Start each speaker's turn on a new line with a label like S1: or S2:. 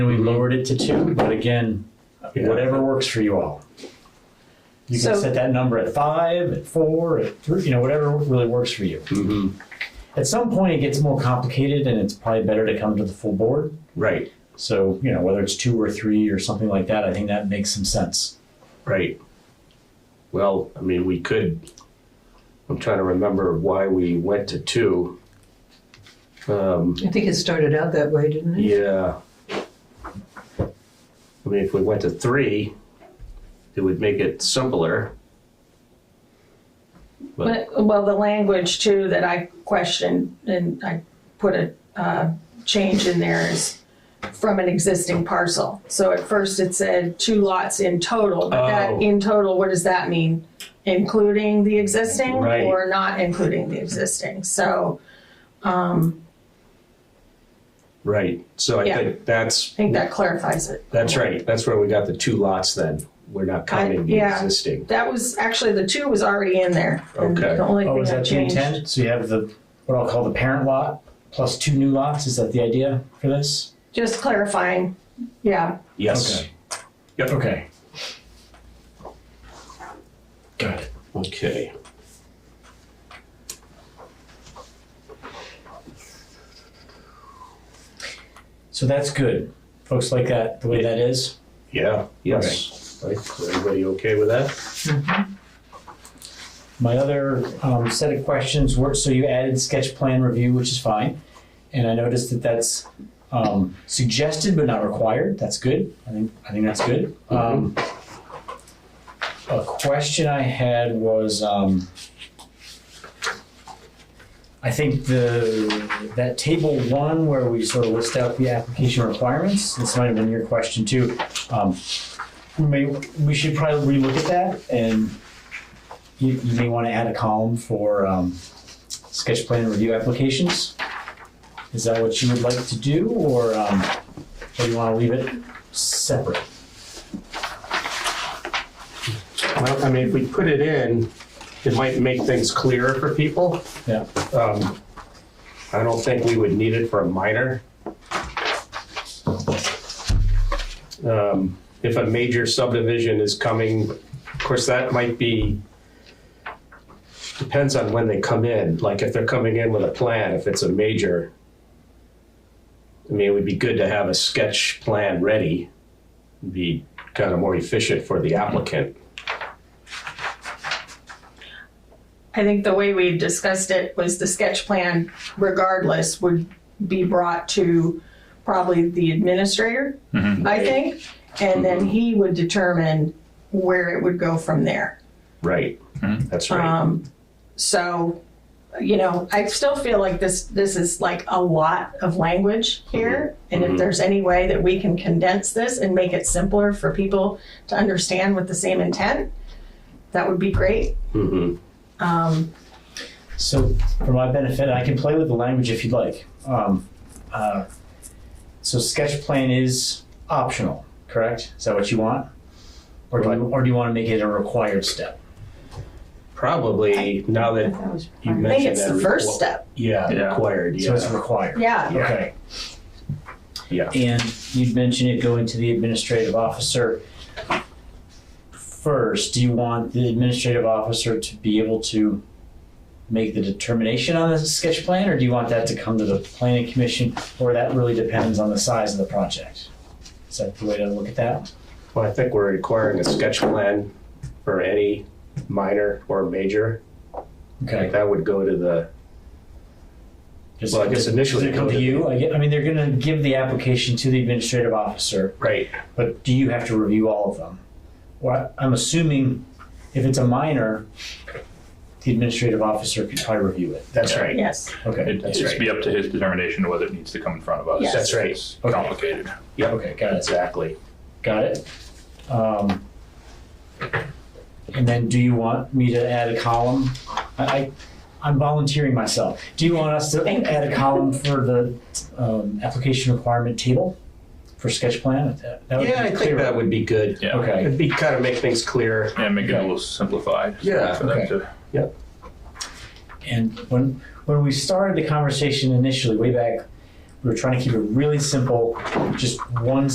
S1: and we lowered it to two, but again,
S2: Yeah.
S1: whatever works for you all. You can
S3: So-
S1: set that number at five, at four, at three, you know, whatever really works for you.
S2: Mhm.
S1: At some point, it gets more complicated and it's probably better to come to the full board.
S2: Right,
S1: So, you know, whether it's two or three or something like that, I think that makes some sense.
S2: right. Well, I mean, we could, I'm trying to remember why we went to two. Um,
S3: I think it started out that way, didn't it?
S2: yeah. I mean, if we went to three, it would make it simpler. But,
S4: But- Well, the language too that I questioned and I put a uh, change in there is from an existing parcel. So at first it said two lots in total, but
S2: Oh.
S4: that in total, what does that mean? Including the existing
S2: Right.
S4: or not including the existing? So
S2: right, so I
S4: Yeah.
S2: think that's,
S4: I think that clarifies it.
S2: that's right, that's where we got the two lots then. We're not counting the
S4: yeah.
S2: existing.
S4: That was, actually, the two was already in there. and
S2: Okay.
S4: The only
S1: Oh, is
S4: thing I
S1: that two
S4: changed.
S1: ten? So you have the, what I'll call the parent lot plus two new lots. Is that the idea for this?
S4: Just clarifying, yeah.
S2: Yes.
S1: Okay. Okay. Got it.
S2: Okay.
S1: So that's good. Folks like that, the way that is.
S2: Yeah, yes. Right, is everybody okay with that?
S1: My other um, set of questions were, so you added sketch plan review, which is fine. And I noticed that that's um, suggested but not required. That's good. I think, I think that's good. Um, a question I had was, um, I think the, that table one where we sort of list out the application requirements, this might have been your question too. Um, we may, we should probably relook at that and you, you may want to add a column for um, sketch plan review applications. Is that what you would like to do, or um, or you want to leave it separate?
S2: Well, I mean, if we put it in, it might make things clearer for people.
S1: Yeah.
S2: Um, I don't think we would need it for a minor. Um, If a major subdivision is coming, of course, that might be, depends on when they come in. Like if they're coming in with a plan, if it's a major, I mean, it would be good to have a sketch plan ready. Be kind of more efficient for the applicant.
S4: I think the way we discussed it was the sketch plan regardless would be brought to probably the administrator,
S2: Mm-hmm.
S4: I think. And then he would determine where it would go from there.
S2: Right. That's right.
S4: Um, so, you know, I still feel like this, this is like a lot of language here.
S2: Mm-hmm.
S4: And if there's any way that we can condense this and make it simpler for people to understand with the same intent, that would be great.
S2: Mhm.
S1: So, for my benefit, I can play with the language if you'd like. Um, uh, so, sketch plan is optional, correct? Is that what you want, or do you, or do you want to make it a required step?
S2: Probably now that you mentioned
S4: I
S2: that.
S4: think it's the first
S2: requ-
S4: step.
S2: Yeah,
S5: Yeah.
S2: required.
S1: So it's
S2: yeah.
S1: required.
S4: Yeah.
S1: Okay.
S2: Yeah.
S1: And you'd mentioned it going to the administrative officer. First, do you want the administrative officer to be able to make the determination on the sketch plan, or do you want that to come to the planning commission, or that really depends on the size of the project? Is that the way to look at that?
S2: Well, I think we're requiring a sketch plan for any minor or major.
S1: Okay.
S2: That would go to the,
S1: Does-
S2: Well, I guess initially
S1: Does it come to you? I get- I mean, they're gonna give the application to the administrative officer.
S2: right,
S1: But do you have to review all of them? Well, I- I'm assuming if it's a minor, the administrative officer could probably review it.
S2: that's right.
S4: Yes.
S1: Okay,
S5: It'd just be up to his determination whether it needs to come in front of us.
S4: Yes.
S2: That's right.
S5: It's
S1: Okay.
S5: complicated.
S1: okay, got it,
S2: Exactly.
S1: got it. Um, And then do you want me to add a column? I, I- I'm volunteering myself. Do you want us to
S4: Thank you.
S1: add a column for the um, application requirement table for sketch plan? That- that would be
S2: Yeah, I think
S1: clearer.
S2: that would be good.
S5: Yeah.
S1: Okay.
S2: It'd be kind of make things clear.
S5: Yeah, make it a
S1: Okay.
S5: little simplified.
S2: Yeah,
S5: For them
S1: okay.
S5: to,
S1: And when when we started the conversation initially, way back, we were trying to keep it really simple, just one